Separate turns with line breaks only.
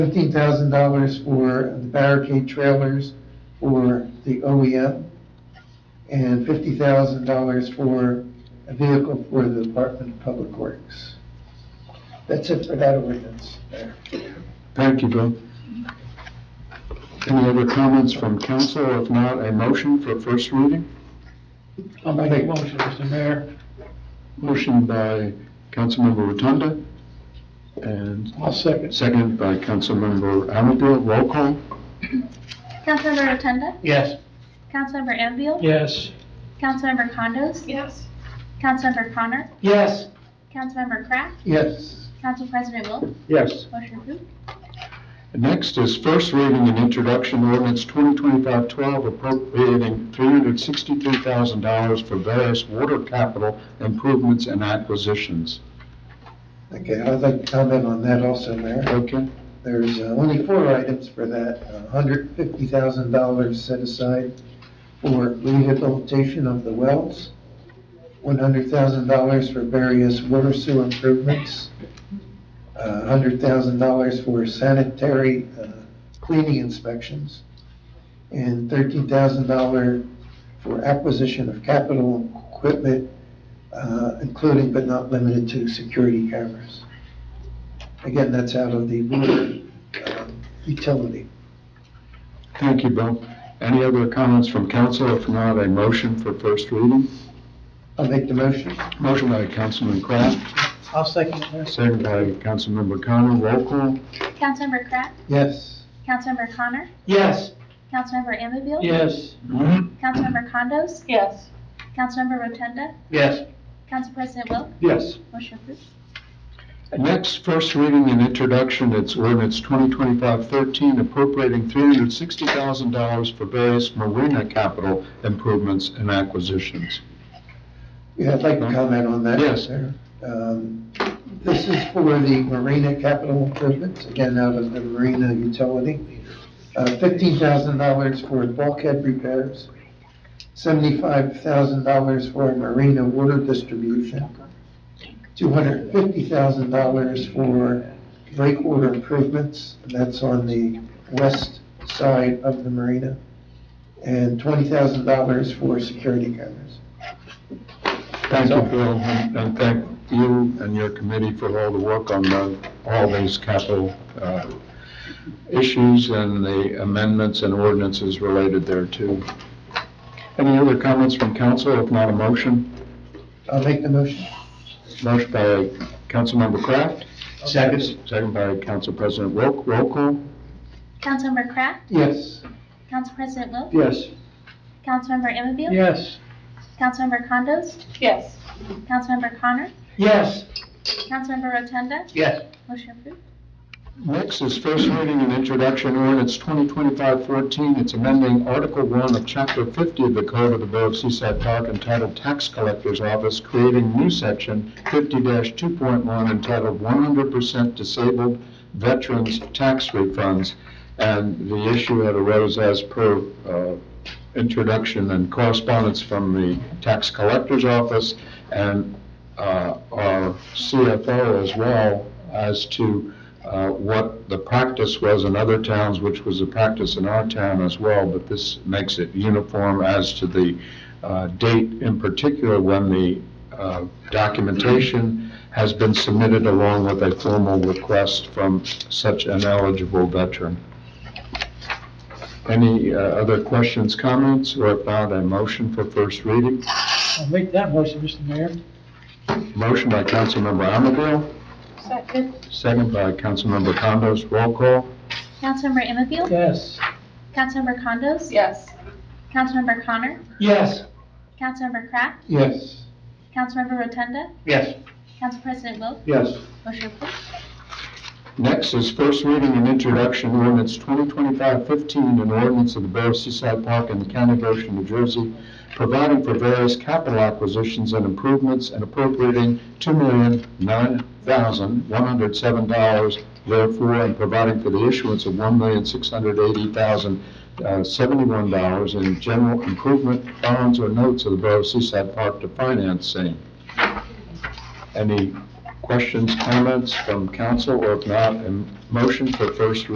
fifteen thousand dollars for the barricade trailers for the OEM, and fifty thousand dollars for a vehicle for the Department of Public Works. That's it for that ordinance, Mayor.
Thank you, Bill. Any other comments from council? If not, a motion for first reading?
I'll make a motion, Mr. Mayor.
Motion by Councilmember Rotunda and
I'll second.
second by Councilmember Amador. Roll call?
Councilmember Rotunda?
Yes.
Councilmember Anfield?
Yes.
Councilmember Condos?
Yes.
Councilmember Connor?
Yes.
Councilmember Kraft?
Yes,
Council President Wilk?
Yes.
Motion approved.
Next is first reading and introduction ordinance 2025-12 appropriating $363,000 for various water capital improvements and acquisitions.
okay, I'd like to comment on that also, Mayor.
Okay?
There's uh, only four items for that, uh, hundred fifty thousand dollars set aside for rehabilitation of the wells, one hundred thousand dollars for various water sewer improvements, uh, hundred thousand dollars for sanitary uh, cleaning inspections, and thirteen thousand dollar for acquisition of capital equipment, uh, including but not limited to security cameras. Again, that's out of the water um, utility.
Thank you, Bill. Any other comments from council? If not, a motion for first reading?
I'll make the motion.
Motion by Councilman Kraft,
I'll second, it, Mayor.
second by Councilmember Connor. Roll call?
Councilmember Kraft?
Yes.
Councilmember Connor?
Yes.
Councilmember Anfield?
Yes.
Councilmember Condos?
Yes.
Councilmember Rotunda?
Yes.
Council President Wilk?
Yes.
Motion approved.
Next, first reading and introduction, it's ordinance 2025-13 appropriating $360,000 for various marina capital improvements and acquisitions.
Yeah, I'd like to comment on that.
Yes.
Mayor. Um, This is for the marina capital improvements, again, out of the marina utility. Uh, Fifteen thousand dollars for bulkhead repairs, seventy-five thousand dollars for marina water distribution, two hundred fifty thousand dollars for breakwater improvements, and that's on the west side of the marina, and twenty thousand dollars for security cameras.
Thank you, Bill, and and thank you and your committee for all the work on the- all these capital uh, issues and the amendments and ordinances related thereto. Any other comments from council, if not a motion?
I'll make the motion.
Motion by Councilmember Kraft,
Second.
second by Council President Wilk. Roll call?
Councilmember Kraft?
Yes.
Council President Wilk?
Yes.
Councilmember Anfield?
Yes.
Councilmember Condos?
Yes.
Councilmember Connor?
Yes.
Councilmember Rotunda?
Yes.
Motion approved.
Next is first reading and introduction ordinance 2025-14. It's amending Article 1 of Chapter 50 of the Code of the Borough of Seaside Park entitled Tax Collector's Office, creating new section 50-2.1 entitled 100% Disabled Veterans Tax Refunds. And the issue that arose as per uh, introduction and correspondence from the Tax Collector's Office and uh, our CFO as well as to uh, what the practice was in other towns, which was the practice in our town as well, but this makes it uniform as to the uh, date in particular when the uh, documentation has been submitted along with a formal request from such an eligible veteran. Any uh, other questions, comments, or if not, a motion for first reading?
I'll make that motion, Mr. Mayor.
Motion by Councilmember Amador,
Second.
second by Councilmember Condos. Roll call?
Councilmember Anfield?
Yes.
Councilmember Condos?
Yes.
Councilmember Connor?
Yes.
Councilmember Kraft?
Yes.
Councilmember Rotunda?
Yes.
Council President Wilk?
Yes.
Motion approved.
Next is first reading and introduction ordinance 2025-15, an ordinance of the Borough of Seaside Park in the County of Ocean, New Jersey, providing for various capital acquisitions and improvements and appropriating $2,009,107 therefore, and providing for the issuance of $1,680,071 in general improvement bonds or notes of the Borough of Seaside Park to finance same. Any questions, comments from council, or if not, a motion for first